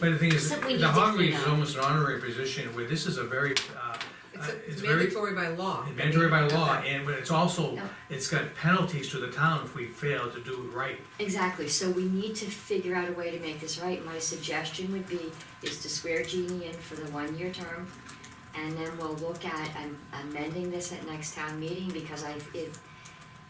But the thing is, Except we the need to Hawkeries clean is up. almost an honorary position, where this is a very, uh, uh, Except it's it's very mandatory by law. mandatory by law, and but it's also, Yeah. it's got penalties to the town if we fail to do it right. Exactly, so we need to figure out a way to make this right. My suggestion would be is to swear Jeannie in for the one-year term, and then we'll look at am- amending this at next town meeting, because I, it,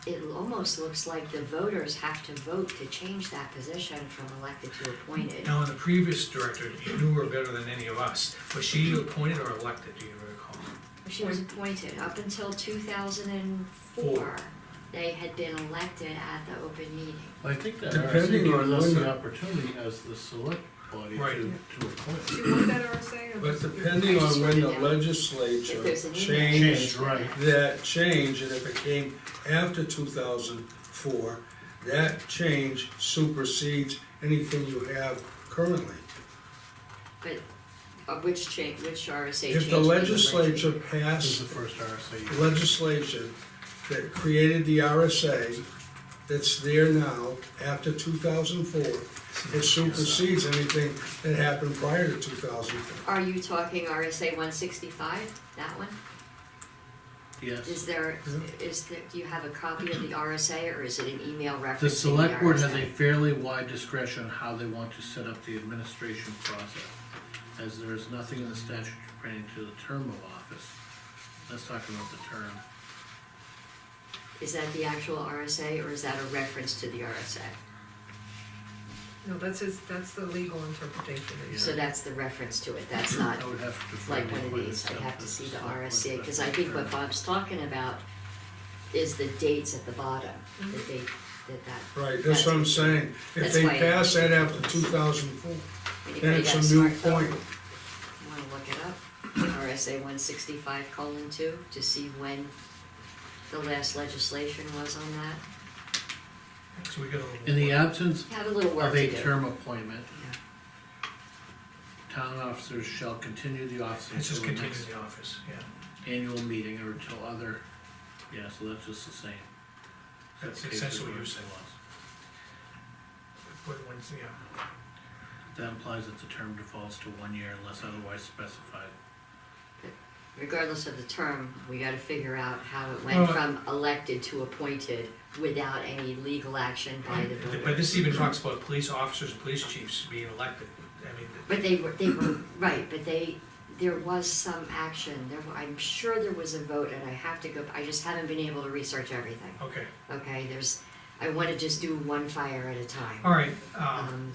it almost looks like the voters have to vote to change that position from elected to appointed. Now, in the previous director, you knew her better than any of us, was she appointed or elected, do you recall? She was appointed up until two thousand and Four. four. They had been elected at the open meeting. I think that RSA Depending gives on us when the the- opportunity as the select body Right. to, to appoint. Do you want that RSA? But depending on when the If legislature there's an email. Change, changed right. that change, and if it came after two thousand four, that change supersedes anything you have currently. Of uh, which change, which RSA change? If the legislature This is passed the first RSA. legislation that created the RSA that's there now after two thousand four, it supersedes anything that happened prior to two thousand four. Are you talking RSA one sixty-five, that one? Is Yes. there, Hmm? is that, do you have a copy of the RSA or is it an email reference? The select board has a fairly wide discretion how they want to set up the administration process, as there is nothing in the statute pertaining to the term of office. Let's talk about the term. Is that the actual RSA or is that a reference to the RSA? No, that's his, that's the legal interpretation. Yeah. So that's the reference to it, that's not I would have to defer like the one of appointment these, I'd stuff have to the see the select board, RSA, but cause I think what defer. Bob's talking about is the dates at the bottom, the date that that. Right, that's what I'm saying. If That's they why- pass that after two thousand four, then Anybody it's got a new smartphone? point. Wanna look it up, RSA one sixty-five colon two, to see when the last legislation was on that. So we got a little. In the absence Have a little work of to a do. term appointment, town officers shall continue the office It's just until the continued next in the office, yeah. annual meeting or until other, yeah, so that's just the same. That's the case essentially what with you're the saying. laws. But once, yeah, That implies that the term defaults to one year unless otherwise specified. Regardless of the term, we gotta figure out how it went Well- from elected to appointed without any legal action by the voters. but this even talks about police officers and police chiefs being elected, I mean, But they were, they were, right, but they, there was some action, there, were- I'm sure there was a vote, and I have to go, I just haven't been able to research everything, okay, okay? There's, I wanna just do one fire at a time. all right, um, Um,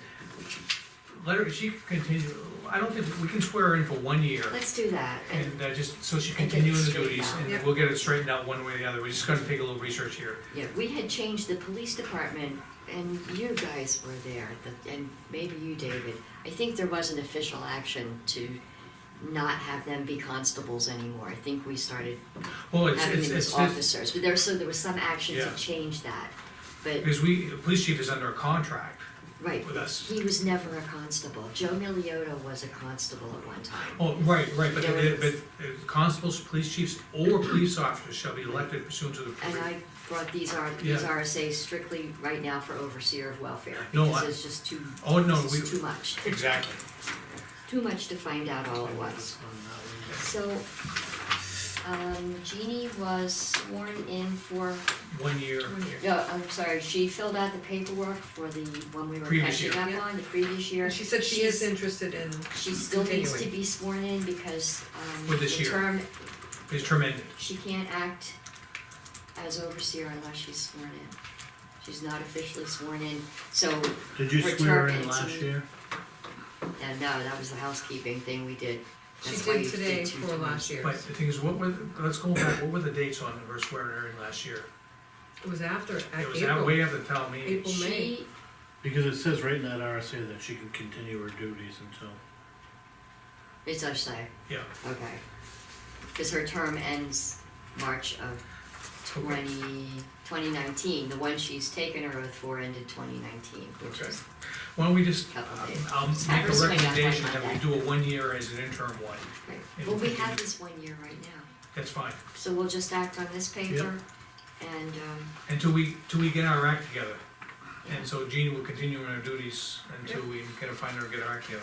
let her, she continue, I don't think, we can swear her in for one year. let's do that, and, And uh, just, so she And get continue in the straight duties, out. and Yep. we'll get it straightened out one way or the other, we're just gonna take a little research here. yeah, we had changed the police department, and you guys were there, the- and maybe you, David. I think there was an official action to not have them be constables anymore, I think we started Well, it's, having it's, them as it's, it's- officers, but there, so there was some action to Yeah. change that, but. because we, the police chief is under a contract Right, with us. he was never a constable. Joe Miliota was a constable at one time. Oh, right, right, but, There the- but is- the constables, police chiefs, or police officers shall be elected pursuant to the. And I brought these R, these Yeah. RSAs strictly right now for overseer of welfare, No, because I- it's just too, Oh, no, it's we, just too much, exactly, too much to find out all at once. On that one. So, um, Jeannie was sworn in for, one year, no, I'm sorry, she filled out the paperwork for the one we were Previous catching year. up on, the previous year. And she said she is interested in, She still needs to continuing. be sworn in because, um, For this the year. term is tremendous. She can't act as overseer unless she's sworn in. She's not officially sworn in, so, uh, Did you Her swear term in last ends in- year? no, uh, that was the housekeeping thing we did. she That's why did you today two for terms. last year. But the thing is, what were, the- let's go back, what were the dates on her swearing her in last year? It was after, at Uh, It was that April. way after the town meeting. April, May. She, Because it says right in that RSA that she can continue her duties until, it's Ashley, Yeah, okay. Because her term ends March of twenty, twenty nineteen. The one she's taken her oath for ended twenty nineteen, which Okay. is, why don't we just, um, Couple days. I'll Just have make her a swing out by recommendation that we Monday. do a one year as an interim one, right. And Well, we we have can- this one year right now, that's fine. so we'll just act on this paper and, um, Until we, till we get our act together. And so Jeannie will continue in her duties until we can find her and get our act together.